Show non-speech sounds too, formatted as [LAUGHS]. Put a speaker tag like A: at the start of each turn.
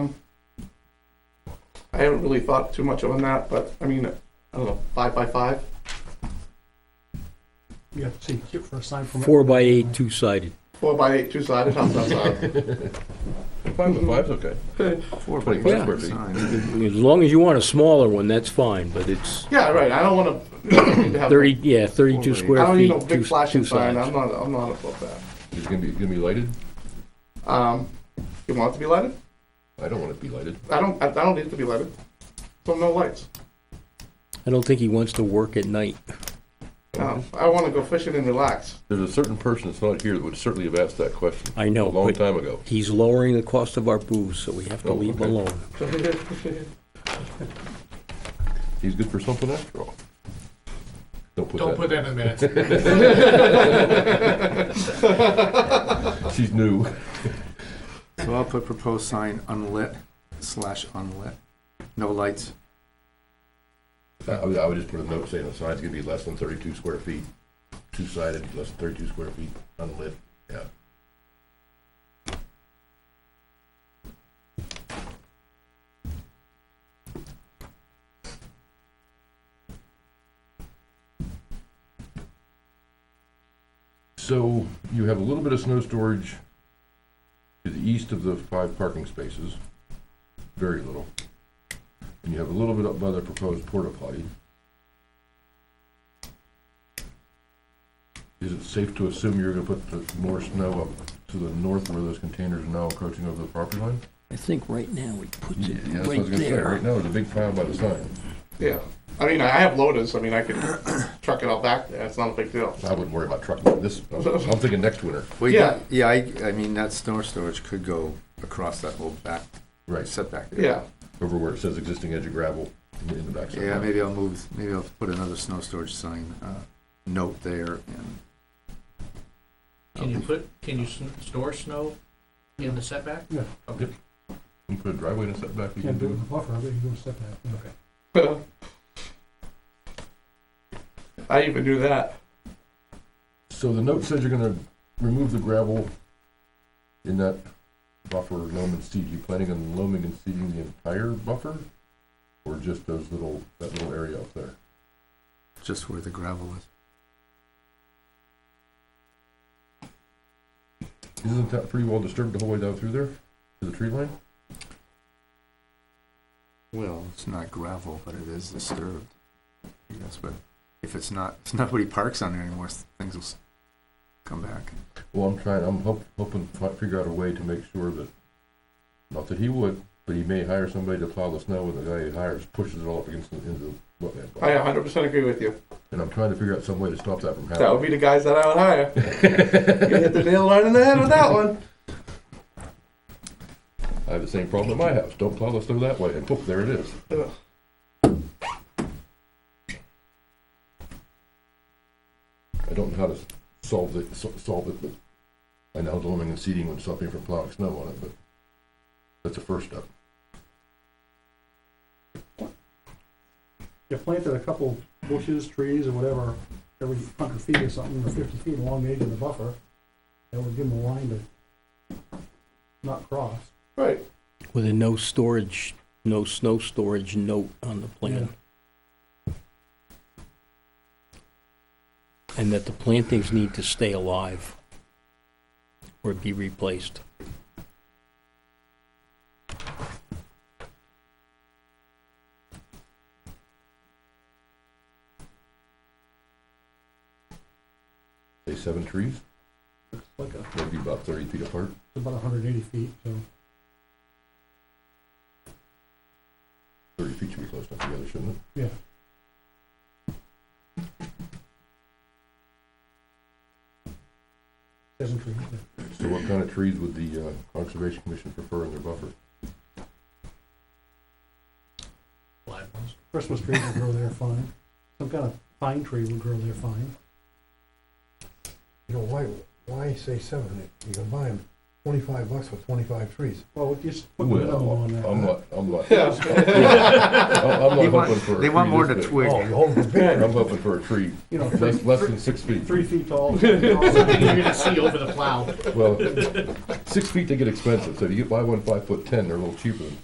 A: I haven't really thought too much on that, but I mean, I don't know, five by five?
B: You have to see, cute for a sign permit.
C: Four by eight, two-sided.
A: Four by eight, two sided, how's that sound?
C: [LAUGHS]
D: Five by five's okay.
E: Four
D: by
C: Yeah.
D: five
E: sign.
C: As long as you want a smaller one, that's fine, but it's
A: Yeah, right, I don't wanna, [CLEARS THROAT] to have.
C: thirty, yeah, thirty-two
A: I
C: square
A: don't need
C: feet,
A: no
C: two,
A: big
C: two
A: flashing sign, I'm
C: sides.
A: not, I'm not above that.
D: It's gonna be, gonna be lighted?
A: Um, you want it to be lighted?
D: I don't want it to be lighted.
A: I don't, I I don't need it to be lighted, so no lights.
C: I don't think he wants to work at night.
A: No, Um, I wanna go fishing and
C: [LAUGHS]
A: relax.
D: There's a certain person that's not here that would certainly have asked that question.
C: I know,
D: A long
C: but-
D: time ago.
C: He's lowering the cost of our booze, so we have to
D: Oh,
C: leave
D: okay.
C: alone.
D: He's good for something after all. Don't put
B: Don't put
D: that,
B: that in the minutes.
D: she's new.
E: So I'll put proposed sign unlit slash unlit, no lights.
D: I would, I would just put a note saying the sign's gonna be less than thirty-two square feet, two-sided, less than thirty-two square feet, unlit, yeah. So you have a little bit of snow storage to the east of the five parking spaces, very little. And you have a little bit up by the proposed porta potty. Is it safe to assume you're gonna put the more snow up to the north where those containers are now encroaching over the property line?
C: I think right now he puts it
D: Yeah, that's what I
C: right
D: was gonna say. Right
C: there.
D: now, there's a big pile by the sign.
A: Yeah, I mean, I have loaders, I mean, I could [CLEARS THROAT] truck it all back there, it's not a big deal.
D: I wouldn't worry about trucking this. I'm I'm thinking next winter.
E: Well,
A: Yeah.
E: Yeah, I, I mean, that snow storage could go across that whole back
D: Right.
E: setback. area.
A: Yeah, [LAUGHS]
D: Over where it says existing edge of gravel in the- in the backside.
E: Yeah, maybe I'll move, maybe I'll put another snow storage sign, uh, note there and.
F: Can you put, can you sn- store snow in the setback?
B: Yeah.
F: Okay.
D: You put a driveway in a setback. you
B: Can't
D: can
B: do it
D: do
B: with
D: it.
B: a buffer, but you can do a setback. yeah.
A: I even do that.
D: So the note says you're gonna remove the gravel in that buffer loam and seed. You planning on loaming and seeding the entire buffer? Or just those little, that little area up there?
E: just where the gravel is.
D: Isn't that pretty well disturbed the whole way down through there to the tree line?
E: Well, it's not gravel, but it is disturbed. Yes, but if it's not, if nobody parks on there anymore, s- things will s- come back.
D: Well, I'm trying, I'm hop- hoping to fi- figure out a way to make sure that, not that he would, but he may hire somebody to plow the snow and the guy he hires pushes it all up against the, into the wetland.
A: I
D: buffer.
A: 100% agree with you.
D: And I'm trying to figure out some way to stop that from happening.
A: That would be the guys that I would hire. you hit the nail right in the head with that one.
D: I have the same problem at my house. Don't plow the snow that way, and poof, there it is.
A: Ugh.
D: I don't know how to s- solve it, so- solve it, but I know loaming and seeding would stop me from plowing snow on it, but that's the first step.
B: You planted a couple bushes, trees, or whatever, every hundred feet or something, or fifty feet along the edge of the buffer. That would give them a line to not cross.
A: Right.
C: With a no storage, no snow storage note on the plan. And that the plantings need to stay alive or be replaced.
D: Say seven trees,
B: It's like a, it's
D: maybe about thirty feet apart.
B: about hundred and eighty feet, so.
D: Thirty feet should be close enough together, shouldn't it?
B: Yeah. Seven trees, yeah.
D: So what kind of trees would the uh, Conservation Commission prefer in their buffer?
F: Live ones.
B: Christmas trees would grow there fine. Some kind of pine tree would grow there fine.
G: You know, why, why say seven? You can buy them twenty-five bucks for twenty-five trees.
B: Well, we just put a minimum
D: Well,
B: on that.
D: I'm not, I'm not,
A: Yeah.
D: I'm
E: They
D: not
E: want-
D: hoping for a
E: They want
D: tree
E: more
D: this
E: than a
D: big.
E: twig.
G: Oh,
D: I'm hoping for a tree
B: You know, three,
D: less, less than six feet.
B: three feet
D: [LAUGHS]
B: tall.
F: You're gonna see over the plow.
D: Well, six feet, they get expensive, so if you buy one five foot ten, they're a little cheaper than